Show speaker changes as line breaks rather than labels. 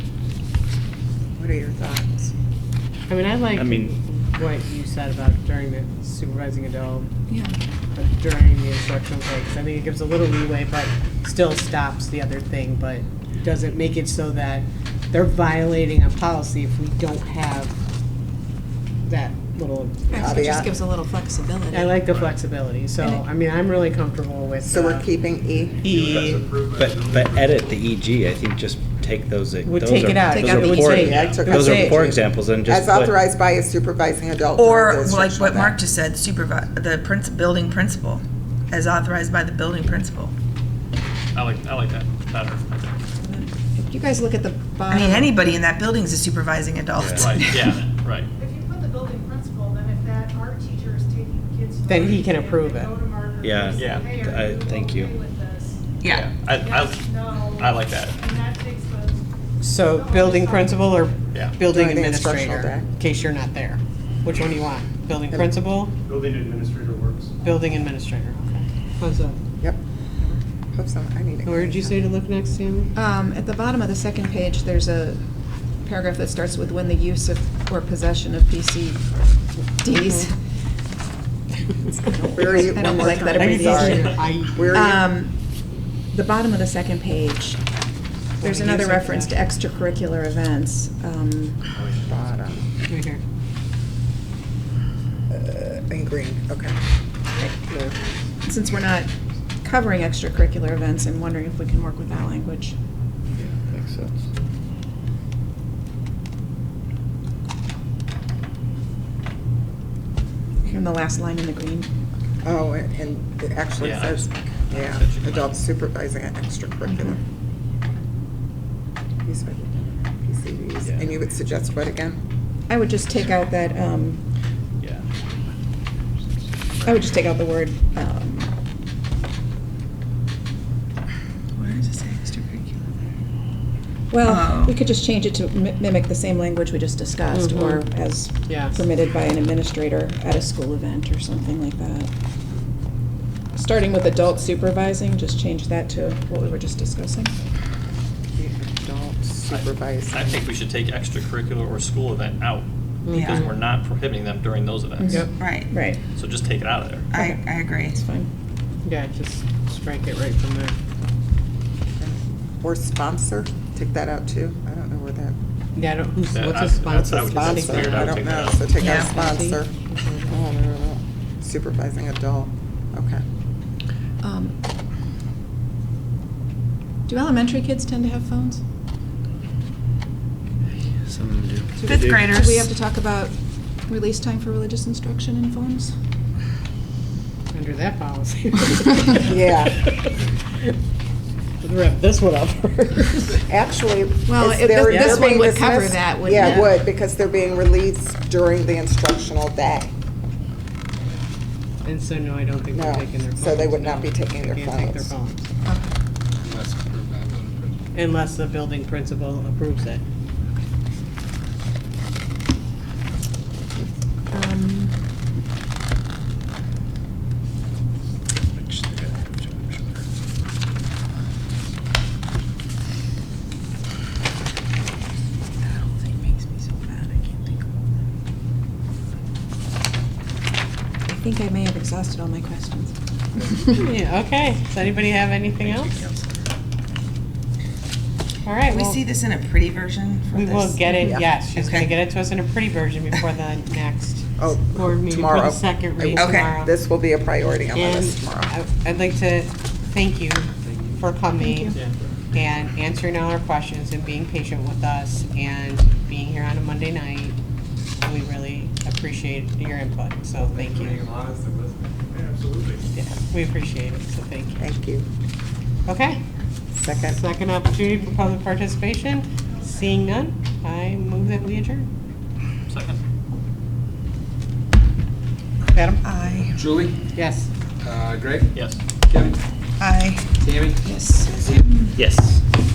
What are your thoughts?
I mean, I like
I mean-
what you said about during the supervising adult,
Yeah.
but during the instructional breaks. I think it gives a little leeway, but still stops the other thing, but doesn't make it so that they're violating a policy if we don't have that little
It just
caveat.
gives a little flexibility.
I like the flexibility, so,
And it-
I mean, I'm really comfortable with.
So we're
uh,
keeping E?
E,
But, but edit the EG, I think just take those.
Would
those
take
are-
it out.
those
Take out
are
the
poor-
EG.
Yeah, I took
Those
out
are
the
poor
EG.
examples and just.
As
put-
authorized by a supervising adult. during the
Or like
instructional
what Mark
day.
just said, supervi, the prince, building principal, as authorized by the building principal.
I like, I like that better, I think.
If you guys look at the
I
bottom.
mean, anybody in that building is a supervising adult.
Right, yeah, right.
If you put the building principal, then if that art teacher is taking kids. to
Then he
art
can
camp,
approve
they
it.
go to Mark and
Yeah.
they say,
Yeah.
"Hey, are
I- thank you.
okay with this?"
Yeah.
I,
Yes,
I,
no.
I like that.
And that takes the.
So building principal or
Yeah.
building
During the instructional
administrator,
day.
in case you're not there? Which one do you want? Building principal,
Building administrator works.
building administrator, okay. How's that?
Yep. Hope so, I need it.
Where did you say to look next, Sammy?
Um, at the bottom of the second page, there's a paragraph that starts with when the use of or possession of PCDs.
Where are you?
I
One
don't
more
like that
time. Sorry.
abbreviation.
I,
Where are you?
Um, the bottom of the second page, there's
When the
another
use of
reference to extracurricular events. Um,
Bottom,
right here.
uh, in green, okay.
since we're not covering extracurricular events, I'm wondering if we can work with that language.
Makes sense.
And the last line in the green.
Oh, and- and it actually
Yeah.
says, yeah,
Said you might.
adult supervising an extracurricular.
Mm-hmm.
These are PCDs.
Yeah.
And you would suggest what again?
I would just take out that, um,
Yeah.
I would just take out the word, um,
Where does it say extracurricular?
well,
Oh.
we could just change it to mi- mimic the same language we just discussed, or as
Yes.
permitted by an administrator at a school event or something like that. Starting with adult supervising, just change that to what we were just discussing.
The adult
I-
supervising.
I think we should take extracurricular or school event out,
Mm-hmm.
because
Yeah.
we're not prohibiting them during those events.
Yep.
Right,
Right,
So just take it out of there.
I, I agree.
it's fine.
Yeah, just strike it right from there.
Or sponsor, take that out too. I don't know where that,
Yeah, I don't, who's,
Yeah,
what's
I-
a
that's
sponsor?
how I would
Let's
just
take
sponsor,
figure it
that
I
out,
out.
don't
take that
know,
out.
so take out
Yeah.
sponsor. Mhm. Oh, no, no, no. Supervising adult, okay.
Um, Do elementary kids tend to have phones?
Some of them do.
Fifth
Do we have
graders.
to talk about release time for religious instruction in phones?
Under that policy.
Yeah.
Rip this one up first.
Actually, is
Well,
there-
it-
they're
this- this one
being
would cover
dismissed-
that, wouldn't
Yeah, it
it?
would, because they're being released during the instructional day.
And so, no, I don't think they're
No,
taking their phones.
so they would not
no.
be taking their
They can't take their
phones.
phones. Unless the building principal approves it.
Um,
That whole thing makes me so mad, I can't think of
I think I may have exhausted all my questions.
Yeah, okay. Does anybody have anything else? All right,
Can we
well,
see this in a pretty version for
we
this?
will get it,
Yeah.
yes. She's gonna
Okay.
get it to us in a pretty version before the next
Oh,
board meeting for
tomorrow.
the second read
Okay.
tomorrow.
This will be a priority on my
And
list tomorrow.
I- I'd like to thank you for coming and answering all our questions and being patient with us and being here on a Monday night. We really appreciate your input, so thank you.
Absolutely.
Yeah, We appreciate it, so thank you.
Thank you.
Okay,
Second.
second opportunity for public participation. Seeing none, I move that we adjourn.
Second.
Adam?
I,
Julie,
Yes.
uh, Greg,
Yes.
Kevin,
I.
Tammy,
Yes.
Steve.
Yes.